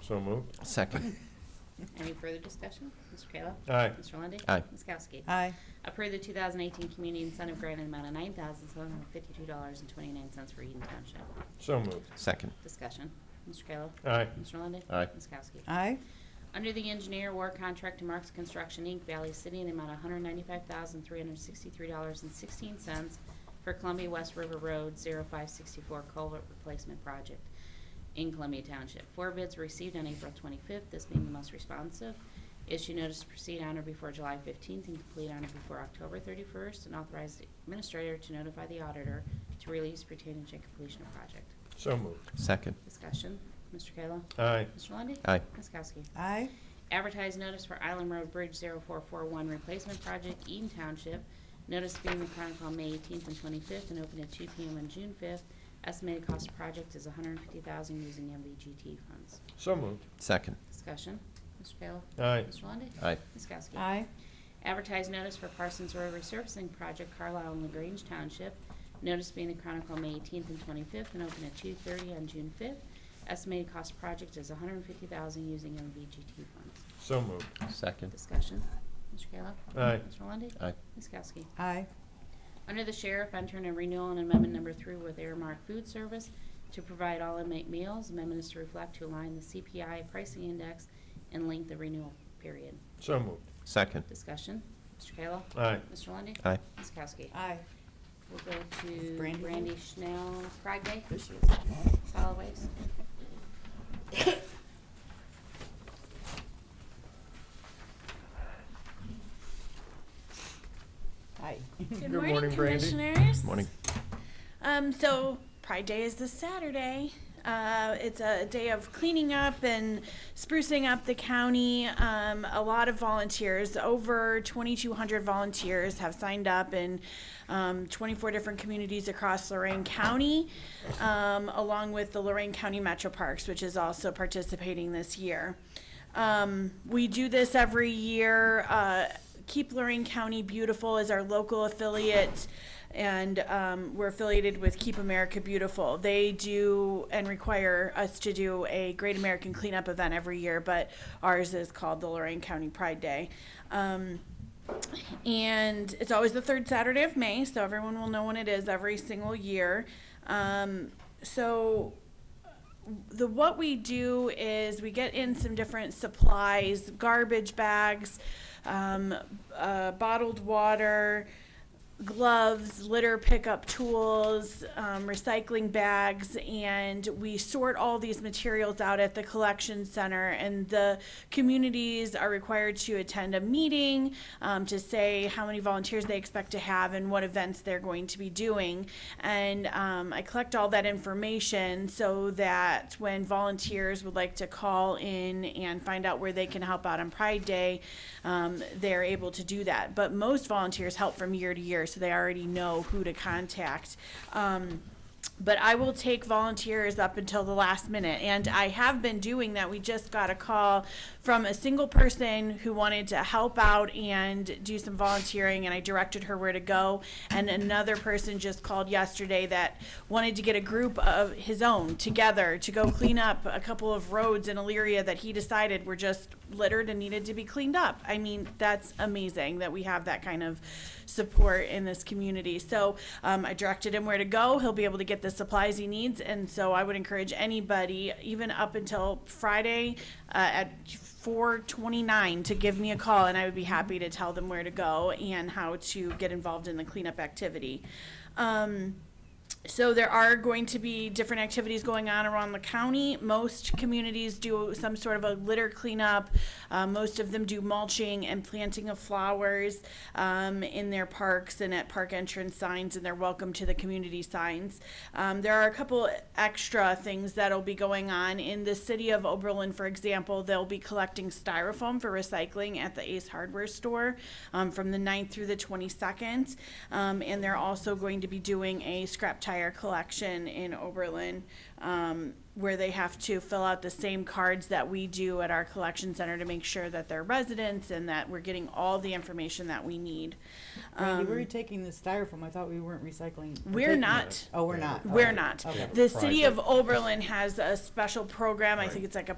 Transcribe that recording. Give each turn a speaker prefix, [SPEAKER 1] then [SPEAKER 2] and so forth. [SPEAKER 1] So moved.
[SPEAKER 2] Second.
[SPEAKER 3] Any further discussion? Mr. Kayla?
[SPEAKER 1] Aye.
[SPEAKER 3] Mr. Lundey?
[SPEAKER 2] Aye.
[SPEAKER 3] Ms. Kowski?
[SPEAKER 4] aye,
[SPEAKER 3] Approve the 2018 Community Incentive Grant in the amount of $9,752.29 for Eden Township.
[SPEAKER 1] So moved.
[SPEAKER 2] Second.
[SPEAKER 3] Discussion. Mr. Kayla?
[SPEAKER 1] Aye.
[SPEAKER 3] Mr. Lundey?
[SPEAKER 2] Aye.
[SPEAKER 3] Ms. Kowski?
[SPEAKER 4] aye,
[SPEAKER 3] Under the engineer war contract to Marks Construction, Inc., Valley City, in the amount of $195,363.16 for Columbia West River Road 0564 Culvert Replacement Project in Columbia Township. Four bids were received on April 25th, this being the most responsive. Issue notice to proceed on or before July 15th and complete on or before October 31st, and authorize the administrator to notify the auditor to release pertaining to completion of project.
[SPEAKER 1] So moved.
[SPEAKER 2] Second.
[SPEAKER 3] Discussion, Mr. Kayla?
[SPEAKER 1] Aye.
[SPEAKER 3] Mr. Lundey?
[SPEAKER 2] Aye.
[SPEAKER 3] Ms. Kowski?
[SPEAKER 4] aye,
[SPEAKER 3] Advertise notice for Island Road Bridge 0441 replacement project, Eaton Township. Notice being the Chronicle on May 18th and 25th and open at 2 PM on June 5th. Estimated cost of project is 150000 using MVGT funds.
[SPEAKER 1] So moved.
[SPEAKER 2] Second.
[SPEAKER 3] Discussion, Mr. Kayla?
[SPEAKER 1] Aye.
[SPEAKER 3] Mr. Lundey?
[SPEAKER 2] Aye.
[SPEAKER 3] Ms. Kowski?
[SPEAKER 4] aye,
[SPEAKER 3] Advertise notice for Parsons Road resurfacing project, Carlisle and LaGrange Township. Notice being the Chronicle on May 18th and 25th and open at 2:30 on June 5th. Estimated cost of project is 150000 using MVGT funds.
[SPEAKER 1] So moved.
[SPEAKER 2] Second.
[SPEAKER 3] Discussion. Mr. Kayla?
[SPEAKER 1] Aye.
[SPEAKER 3] Mr. Lundey?
[SPEAKER 2] Aye.
[SPEAKER 3] Ms. Kowski?
[SPEAKER 4] aye,
[SPEAKER 3] Under the Sheriff, enter in a renewal and amendment number three with Airmark Food Service to provide all inmate meals. Amendment is to reflect to align the CPI pricing index and link the renewal period.
[SPEAKER 1] So moved.
[SPEAKER 2] Second.
[SPEAKER 3] Discussion. Mr. Kayla?
[SPEAKER 1] Aye.
[SPEAKER 3] Mr. Lundey?
[SPEAKER 2] Aye.
[SPEAKER 3] Ms. Kowski?
[SPEAKER 4] aye.
[SPEAKER 3] We'll go to
[SPEAKER 4] Brandy.
[SPEAKER 3] Brandy Schnell, Pride Day,
[SPEAKER 4] There she is.
[SPEAKER 3] solid waste.
[SPEAKER 4] Aye.
[SPEAKER 1] Good morning, morning, Brandy.
[SPEAKER 5] Commissioners.
[SPEAKER 2] Morning.
[SPEAKER 5] Um, so Pride Day is this Saturday. Uh, it's a day of cleaning up and sprucing up the county. Um, a lot of volunteers, over 2,200 volunteers, have signed up in um, 24 different communities across Lorraine County, um, along with the Lorraine County Metro Parks, which is also participating this year. Um, we do this every year. Uh, Keep Lorraine County Beautiful is our local affiliate, and um, we're affiliated with Keep America Beautiful. They do and require us to do a Great American Cleanup event every year, but ours is called the Lorraine County Pride Day. Um, and it's always the third Saturday of May, so everyone will know when it is every single year. Um, so the what we do is we get in some different supplies, garbage bags, um, uh, bottled water, gloves, litter pickup tools, um, recycling bags, and we sort all these materials out at the collection center. And the communities are required to attend a meeting um, to say how many volunteers they expect to have and what events they're going to be doing. And um, I collect all that information so that when volunteers would like to call in and find out where they can help out on Pride Day, um, they're able to do that. But most volunteers help from year to year, so they already know who to contact. Um, but I will take volunteers up until the last minute. And I have been doing that. We just got a call from a single person who wanted to help out and do some volunteering, and I directed her where to go. And another person just called yesterday that wanted to get a group of his own together to go clean up a couple of roads in Elyria that he decided were just littered and needed to be cleaned up. I mean, that's amazing that we have that kind of support in this community. So um, I directed him where to go. He'll be able to get the supplies he needs. And so I would encourage anybody, even up until Friday uh, at 429, to give me a call, and I would be happy to tell them where to go and how to get involved in the cleanup activity. Um, so there are going to be different activities going on around the county. Most communities do some sort of a litter cleanup. Uh, most of them do mulching and planting of flowers um, in their parks and at park entrance signs and their welcome to the community signs. Um, there are a couple extra things that'll be going on in the city of Oberlin, for example. They'll be collecting styrofoam for recycling at the Ace Hardware store um, from the 9th through the 22nd. Um, and they're also going to be doing a scrap tire collection in Oberlin um, where they have to fill out the same cards that we do at our collection center to make sure that they're residents and that we're getting all the information that we need.
[SPEAKER 4] Randy, where are
[SPEAKER 5] Um,
[SPEAKER 4] you taking the styrofoam? I thought we weren't recycling.
[SPEAKER 5] We're
[SPEAKER 4] taking it.
[SPEAKER 5] not.
[SPEAKER 4] Oh, we're not.
[SPEAKER 5] We're
[SPEAKER 4] Okay.
[SPEAKER 5] not.
[SPEAKER 4] Okay.
[SPEAKER 5] The city of Oberlin has a special program. I
[SPEAKER 1] Right.
[SPEAKER 5] think it's like a